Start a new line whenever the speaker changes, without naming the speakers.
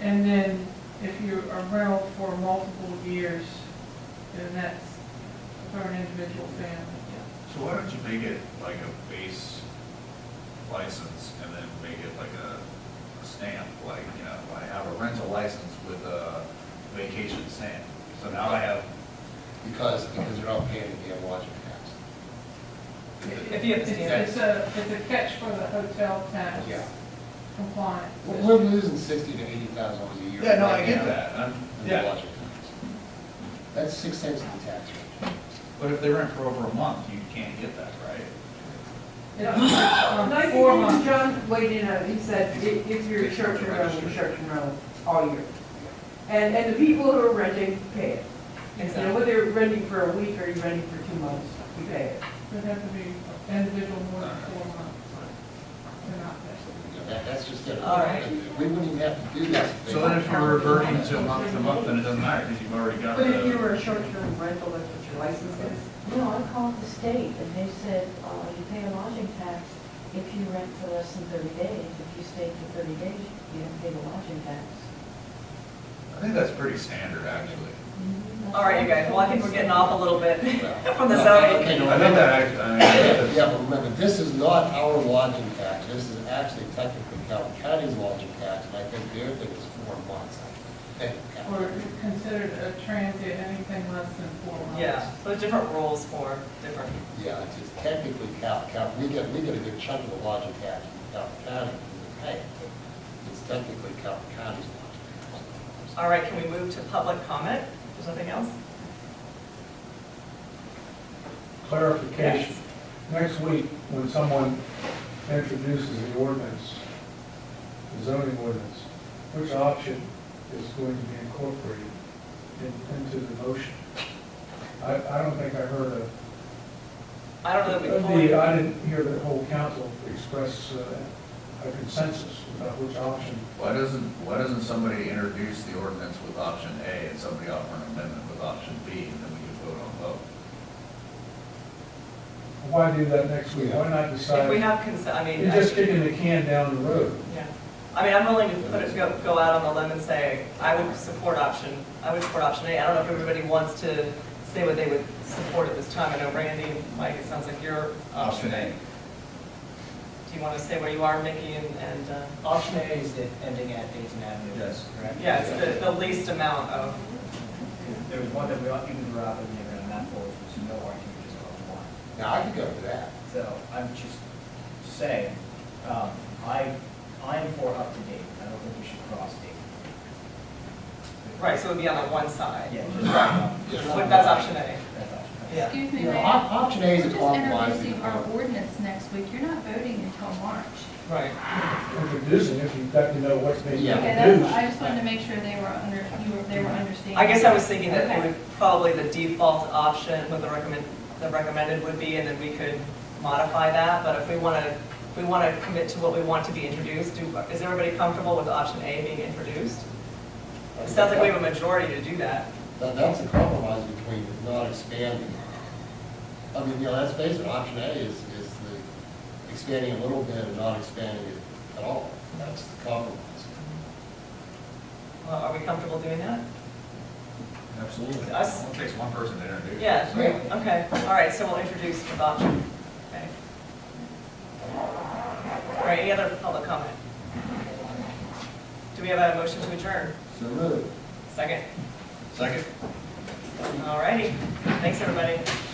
And then if you're a rental for multiple years, then that's for an individual family.
So why don't you make it like a base license and then make it like a a stamp, like, you know, I have a rental license with a vacation stamp. So now I have,
Because, because you're not paying the damn lodging tax.
If you have to stand.
It's it's a, it's a catch for the hotel tax
Yeah.
compliance.
We're- We're losing sixty to eighty thousand dollars a year.
yeah, no, I
right
get
now
that, I'm,
in the
yeah.
lodging tax. That's six cents in the tax rate.
But if they rent for over a month, you can't get that, right?
It's, um, Four
No,
months.
John weighed in on it, he said, "I- if you're a church and rental, you're a church and rental all year. And, and the people who are renting pay it. You know,
Exactly.
whether you're renting for a week or you're renting for two months, you pay it.
It'd have to be individual more than four months. They're not
So,
that.
you know, That, that's just it.
All right.
We wouldn't even have to do this. if they
So then if you're
weren't-
reverting to month to month, then it doesn't matter, because you've already got
But if you
the.
were a short-term rental, that's what your license is.
No, I called the state and they said, uh, you pay a lodging tax if you rent for less than thirty days. If you stay for thirty days, you don't pay the lodging tax.
I think that's pretty standard, actually.
Mm-hmm.
All right, you guys, well, I think we're getting off a little bit
Well,
from the
no,
zoning.
Okay, no,
I think that, act-
remember,
I mean, that's-
yeah, but remember, this is not our lodging tax, this is actually technically Calhoun County's lodging tax, and I think their thing is four months. I think.
Or considered a transient, anything less than four months.
Yeah, so there's different rules for different,
Yeah, it's just technically Cal, Cal, we get, we get a good chunk of the lodging tax from Cal County, we pay it, but it's technically Cal County's lodging tax.
all right, can we move to public comment? There's nothing else?
clarification. Next week, when someone introduces the ordinance, the zoning ordinance, which option is going to be incorporated in- into the motion? I, I don't think I heard a,
I don't know that we fully,
the- I didn't hear the whole council express uh, a consensus about which option.
Why doesn't, why doesn't somebody introduce the ordinance with option A and somebody offer an amendment with option B, and then we can vote on both?
Why do that next week? Why not
Uh,
if we
decide?
have consent, I mean.
You're just kicking the can down the road.
Yeah, I mean, I'm willing to put it, go, go out on a limb and say, I would support option, I would support option A. I don't know if everybody wants to say what they would support at this time. I know Randy, Mike, it sounds like your option A. Do you want to say where you are, Mickey, and, and, uh,
Option A is the ending at Dayton Avenue.
Yes.
Correct?
yeah, it's the, the least amount of,
There was one that we, all- even Rob and me around that for, which was no argument, just called one.
Now, I could go for that.
So I'm just saying, um, I, I'm for up to date. I don't think we should cross date.
right, so it would be on the one side.
Yeah, just, um,
Yeah.
Like, That's option A.
that's option.
Yeah.
Excuse me,
You know,
Mayor.
op- option A is
We're just
compromise.
introducing our ordinance next week. You're not voting until March.
Right.
Introducing, if you've got to know what's being
Yeah.
Okay,
introduced.
that's, I just wanted to make sure they were under, you were, they were understanding.
I guess I was thinking that it
Okay.
would probably the default option, what the recommend, the recommended would be, and then we could modify that, but if we want to, if we want to commit to what we want to be introduced, do, is everybody comfortable with option A being introduced? It sounds like we have a majority to do that.
That, that's a compromise between not expanding. I mean, you know, let's face it, option A is, is the expanding a little bit and not expanding it at all. That's the compromise.
Well, Are we comfortable doing that?
Absolutely.
Us?
It takes one person to introduce.
Yeah,
Yeah.
okay, all right, so we'll introduce with option, okay. All right, any other public comment? Do we have a motion to adjourn?
So moved.
Second?
Second?
All righty, thanks, everybody.